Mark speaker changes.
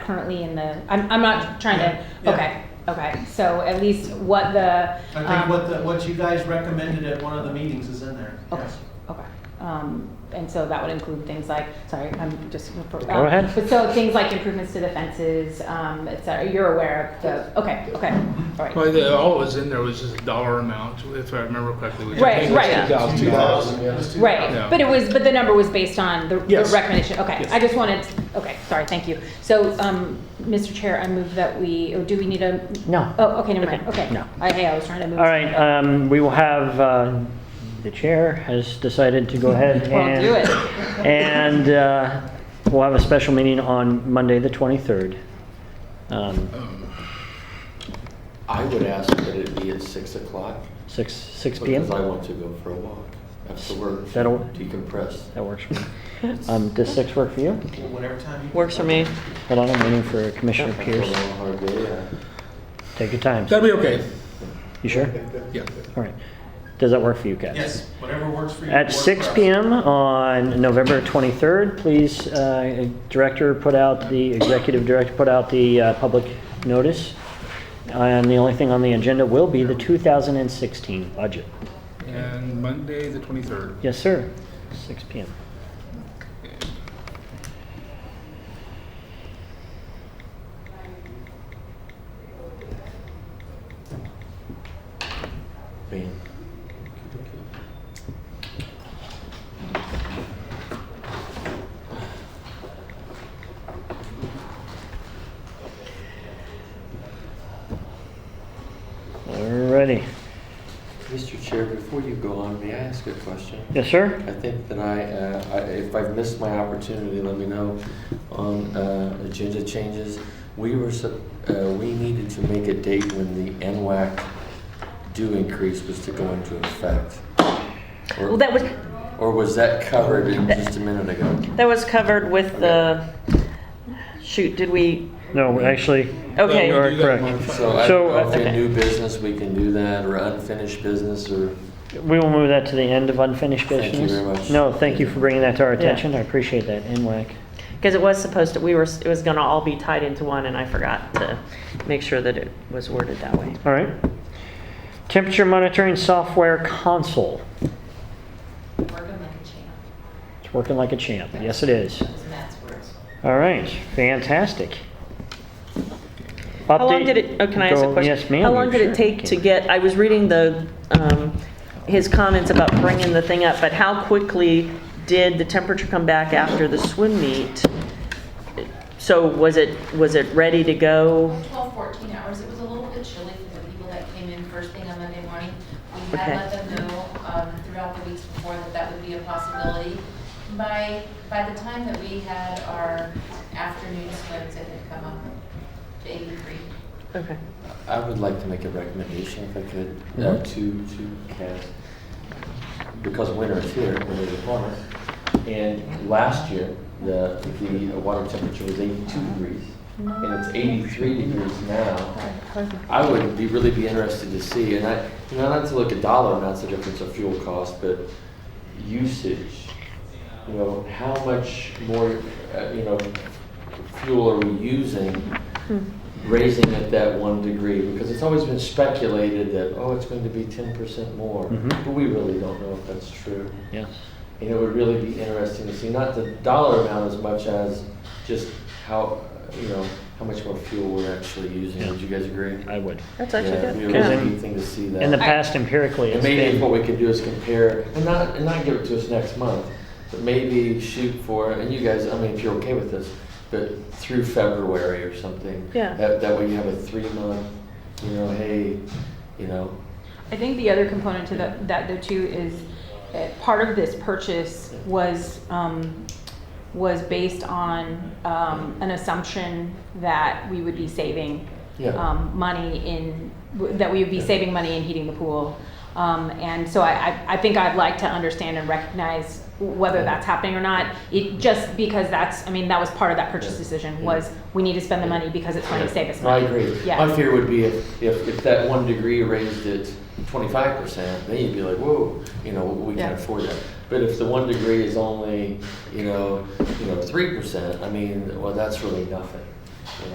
Speaker 1: currently in the, I'm, I'm not trying to,
Speaker 2: Yeah,
Speaker 1: okay, okay. So at least what the,
Speaker 2: I
Speaker 1: um,
Speaker 2: think what the, what you guys recommended at one of the meetings is in there.
Speaker 1: Okay,
Speaker 2: Yes.
Speaker 1: okay. Um, and so that would include things like, sorry, I'm just.
Speaker 3: Go ahead.
Speaker 1: But so things like improvements to the fences, um, et cetera, you're aware of the, okay, okay,
Speaker 2: Mm-hmm.
Speaker 1: all right.
Speaker 4: Well, the, all it was in there was just a dollar amount, if I remember correctly. which I
Speaker 1: Right,
Speaker 4: think was
Speaker 1: right.
Speaker 3: 2000.
Speaker 2: 2000, yeah, it was 2000.
Speaker 1: Right,
Speaker 4: Yeah.
Speaker 1: but it was, but the number was based on the the
Speaker 4: Yes.
Speaker 1: recommendation, okay.
Speaker 4: Yes.
Speaker 1: I just wanted, okay, sorry, thank you. So, um, Mr. Chair, I move that we, or do we need a?
Speaker 3: No.
Speaker 1: Oh, okay, never mind, okay.
Speaker 3: No.
Speaker 1: I, hey, I was trying to move.
Speaker 3: All right, um, we will have, uh, the chair has decided to go ahead uh,
Speaker 1: Well,
Speaker 3: and.
Speaker 1: do it.
Speaker 3: And, uh, we'll have a special meeting on Monday, the 23rd. Um,
Speaker 5: I would ask that it be at six o'clock,
Speaker 3: six, six PM?
Speaker 5: because I want to go for a walk after work,
Speaker 3: That'll-
Speaker 5: decompress.
Speaker 3: That works for me. Um, does six work for you?
Speaker 2: Whatever time you.
Speaker 6: Works for me.
Speaker 3: Hold on, I'm waiting for Commissioner
Speaker 5: After a
Speaker 3: Pierce.
Speaker 5: long, hard day, uh,
Speaker 3: Take your time.
Speaker 4: That'd be okay,
Speaker 3: You sure?
Speaker 4: yeah.
Speaker 3: All right. Does that work for you guys?
Speaker 2: Yes, whatever works for you.
Speaker 3: At
Speaker 2: works
Speaker 3: six
Speaker 2: for us.
Speaker 3: PM on November 23rd, please, uh, Director put out, the Executive Director put out the uh, public notice. And the only thing on the agenda will be the 2016 budget.
Speaker 4: And Monday, the 23rd.
Speaker 3: Yes, sir. Six PM.
Speaker 5: man.
Speaker 3: Alrighty.
Speaker 5: Mr. Chair, before you go on, may I ask a question?
Speaker 3: Yes, sir?
Speaker 5: I think that I, uh, I- if I've missed my opportunity, let me know. On uh, agenda changes, we were, sup- uh, we needed to make a date when the NWAC due increase was to go into effect. Or-
Speaker 6: Well, that was,
Speaker 5: Or was that covered in just a minute ago?
Speaker 6: that was covered with the, shoot, did we,
Speaker 3: No, actually.
Speaker 6: Okay.
Speaker 3: You are correct.
Speaker 5: So I
Speaker 3: So,
Speaker 5: don't know if
Speaker 3: okay.
Speaker 5: in new business we can do that, or unfinished business, or,
Speaker 3: We will move that to the end of unfinished
Speaker 5: Thank you
Speaker 3: business.
Speaker 5: very much.
Speaker 3: No, thank you for bringing that to our
Speaker 6: Yeah.
Speaker 3: attention. I appreciate that, NWAC.
Speaker 6: because it was supposed to, we were, it was gonna all be tied into one, and I forgot to make sure that it was worded that way.
Speaker 3: All right. Temperature monitoring software console.
Speaker 7: Working like a champ,
Speaker 3: It's working like a champ. Yes, it is.
Speaker 7: is Matt's words.
Speaker 3: All right. Fantastic.
Speaker 6: How long did it, oh, can I ask a question?
Speaker 3: Yes, ma'am.
Speaker 6: How long did it take to get, I was reading the, um, his comments about bringing the thing up, but how quickly did the temperature come back after the swim meet? So was it, was it ready to go?
Speaker 7: 12, 14 hours, it was a little bit chilly for the people that came in first thing on Monday morning. We
Speaker 6: Okay.
Speaker 7: had let them know um, throughout the weeks before that that would be a possibility. By, by the time that we had our afternoon swims, it had come up to 83.
Speaker 6: Okay.
Speaker 5: I would like to make a recommendation if I could, uh,
Speaker 3: Mhm.
Speaker 5: to, to have, because winter is here, winter is upon us. And last year, the, the water temperature was eighty-two degrees, and it's eighty-three degrees now. I would be, really be interested to see, and I, you know, not to look at dollar amounts, the difference of fuel cost, but usage. You know, how much more, uh, you know, fuel are we using? Raising it that one degree, because it's always been speculated that, oh, it's going to be ten percent more.
Speaker 3: Mhm.
Speaker 5: But we really don't know if that's true.
Speaker 3: Yes.
Speaker 5: And it would really be interesting to see, not the dollar amount as much as just how, uh, you know, how much more fuel we're actually using. Would you guys agree?
Speaker 3: I would.
Speaker 6: That's
Speaker 5: Yeah, it'd be
Speaker 6: actually
Speaker 5: a
Speaker 6: good.
Speaker 3: Okay.
Speaker 5: really neat thing to see that.
Speaker 3: In the past, empirically,
Speaker 5: And
Speaker 3: it's
Speaker 5: maybe what
Speaker 3: been.
Speaker 5: we could do is compare, and not, and not give it to us next month, but maybe shoot for, and you guys, I mean, if you're okay with this, but through February or something.
Speaker 6: Yeah.
Speaker 5: That, that way you have a three month, you know, hey, you know,
Speaker 1: I think the other component to that, that though too is, uh, part of this purchase was, um, was based on, um, an assumption that we would be saving,
Speaker 5: Yeah.
Speaker 1: um, money in, that we would be saving money in heating the pool. Um, and so I, I, I think I'd like to understand and recognize whether that's happening or not. It, just because that's, I mean, that was part of that purchase decision was, we need to spend the money because it's going to save us
Speaker 5: I
Speaker 1: money.
Speaker 5: agree.
Speaker 1: Yeah.
Speaker 5: My fear would be if, if, if that one degree raised it twenty-five percent, then you'd be like, whoa, you know, we
Speaker 1: Yeah.
Speaker 5: can't afford that. But if the one degree is only, you know, you know, three percent, I mean, well, that's really nothing.